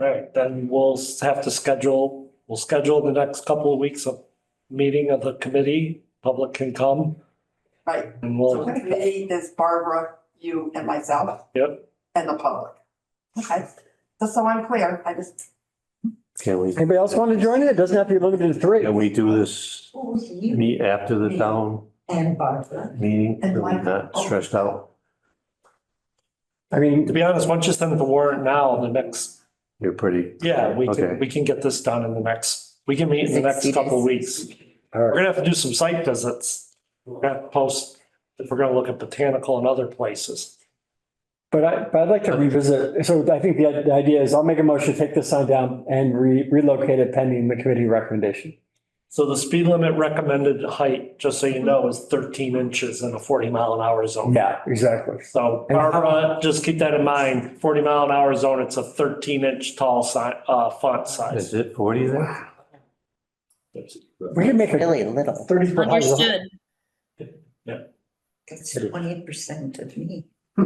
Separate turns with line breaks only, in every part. All right, then we'll s- have to schedule, we'll schedule the next couple of weeks of meeting of the committee, public can come
Right,
and
so
we'll,
the committee is Barbara, you and myself.
Yep.
And the public. Okay, just so I'm clear, I just,
Can we,
Anybody else want to join it? It doesn't have to be limited to three.
can we do this
Who's you
meet after the town
and Barbara?
meeting?
And
so we're
why-
Not stressed out.
I
to
mean,
be honest, once you send the warrant now, the next,
You're pretty,
yeah, we can,
Okay.
we can get this done in the next, we can meet in the next
60
couple of weeks.
days.
all
We're
right,
gonna have to do some site visits. We're gonna have to post, if we're gonna look at botanical and other places.
but I, but I'd like to revisit. So I think the, the idea is I'll make a motion to take this sign down and re- relocate it pending the committee recommendation.
So the speed limit recommended height, just so you know, is thirteen inches in a forty mile an hour zone.
Yeah, exactly.
So
And how-
Barbara, just keep that in mind, forty mile an hour zone, it's a thirteen inch tall si- uh, font
is
size.
it forty there?
We can make a
Really little.
thirty foot high. wall.
Understood.
It's twenty-eight percent of me.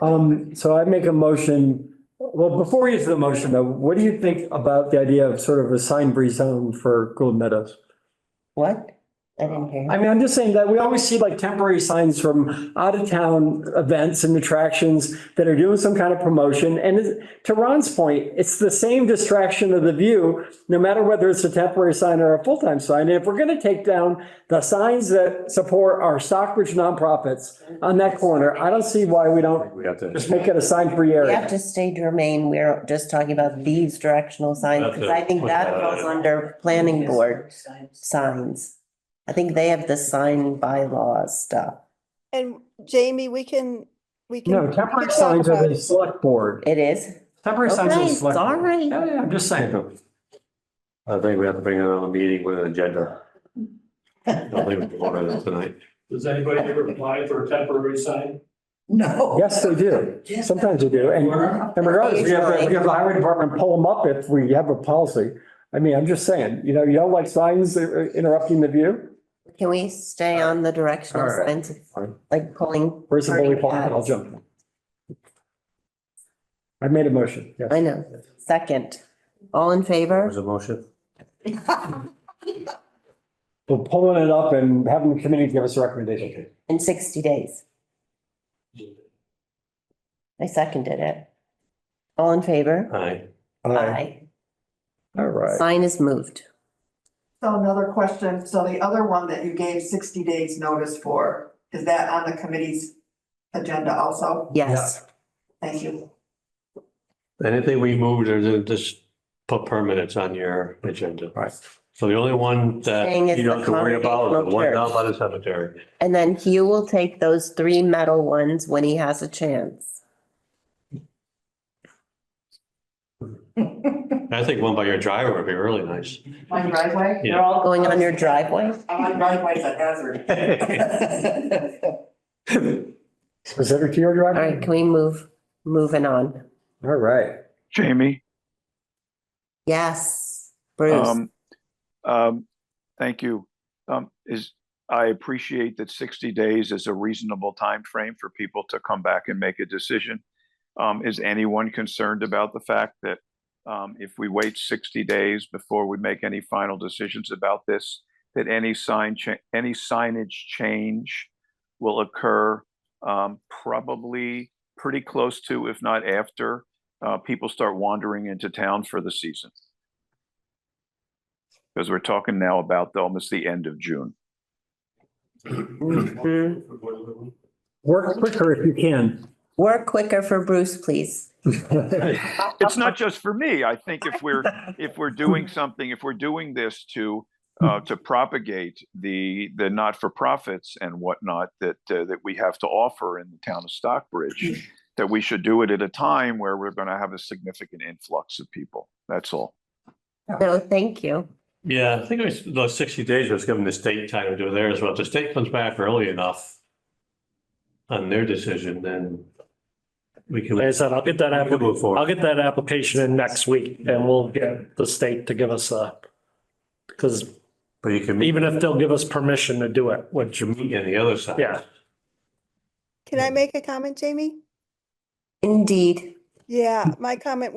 Um, so I make a motion. Well, before we get to the motion though, what do you think about the idea of sort of a sign free zone for Gould Meadows?
What? I didn't hear.
I mean, I'm just saying that we always see like temporary signs from out of town events and attractions that are doing some kind of promotion. And it- to Ron's point, it's the same distraction of the view, no matter whether it's a temporary sign or a full-time sign. And if we're going to take down the signs that support our Stockbridge nonprofits on that corner, I don't see why we don't
We have to,
just make it a sign-free
We have
area.
to stay germaine. We're just talking about these directional signs because I think that falls under planning board signs. I think they have the sign bylaws stuff.
And Jamie, we can, we can.
No,
we
temporary
can
signs
talk
are the
about-
select board.
It is.
Temporary signs are the
Okay,
select. board.
sorry.
Yeah, yeah, I'm just saying.
I think we have to bring another meeting with an agenda. I don't think we can order that tonight.
Does anybody ever apply for a temporary sign?
No.
Yes, they do.
Yes.
Sometimes they do. And And regardless, we have, we have the highway department pull them up if we have a policy. I mean, I'm just saying, you know, you don't like signs that are interrupting the view?
Can we stay on the directional
All right.
signs,
Fine.
like pulling?
Where's the bully
party
pulpit? I'll
hats?
jump. I made a motion. yes.
I know. Second. All in favor?
There's a motion.
We're pulling it up and having the committee give us a recommendation.
In sixty days. I seconded it. All in favor?
Aye.
Aye.
All right.
Sign is moved.
so another question, so the other one that you gave sixty days notice for, is that on the committee's agenda also?
Yes.
Thank you.
Anything we moved or then just put permanents on your agenda.
Right.
So the only one that
Saying it's
you don't have to worry about is the one
the
down by the cemetery.
And then Hugh will take those three metal ones when he has a chance.
I think one by your driver would be really nice.
My driveway?
Yeah.
They're all-
Going on your driveway?
Oh, My driveway's a hazard.
Specific to your
All right,
driver?
can we move, moving on?
All right.
Jamie,
Yes, Bruce.
um, um, thank you. Um, is, I appreciate that sixty days is a reasonable time frame for people to come back and make a decision. Um, is anyone concerned about the fact that, um, if we wait sixty days before we make any final decisions about this, that any sign cha- any signage change will occur, um, probably pretty close to, if not after, uh, people start wandering into town for the season? Because we're talking now about the- almost the end of June.
Mhm.
Work quicker if you can.
Work quicker for Bruce, please.
It's not just for me. I think if we're, if we're doing something, if we're doing this to, uh, to propagate the, the not-for-profits and whatnot that, uh, that we have to offer in the town of Stockbridge, that we should do it at a time where we're going to have a significant influx of people. That's all.
No, thank you.
Yeah, I think it was those sixty days was given the state time to do theirs, well, if the state comes back early enough on their decision, then we can.
Like I said, I'll get that,
we can
applic-
move forward.
I'll get that application in next week and we'll get the state to give us a, because
But you can meet,
even if they'll give us permission to do it, which,
you meet on the other side.
yeah.
Can I make a comment, Jamie?
Indeed.
Yeah, my comment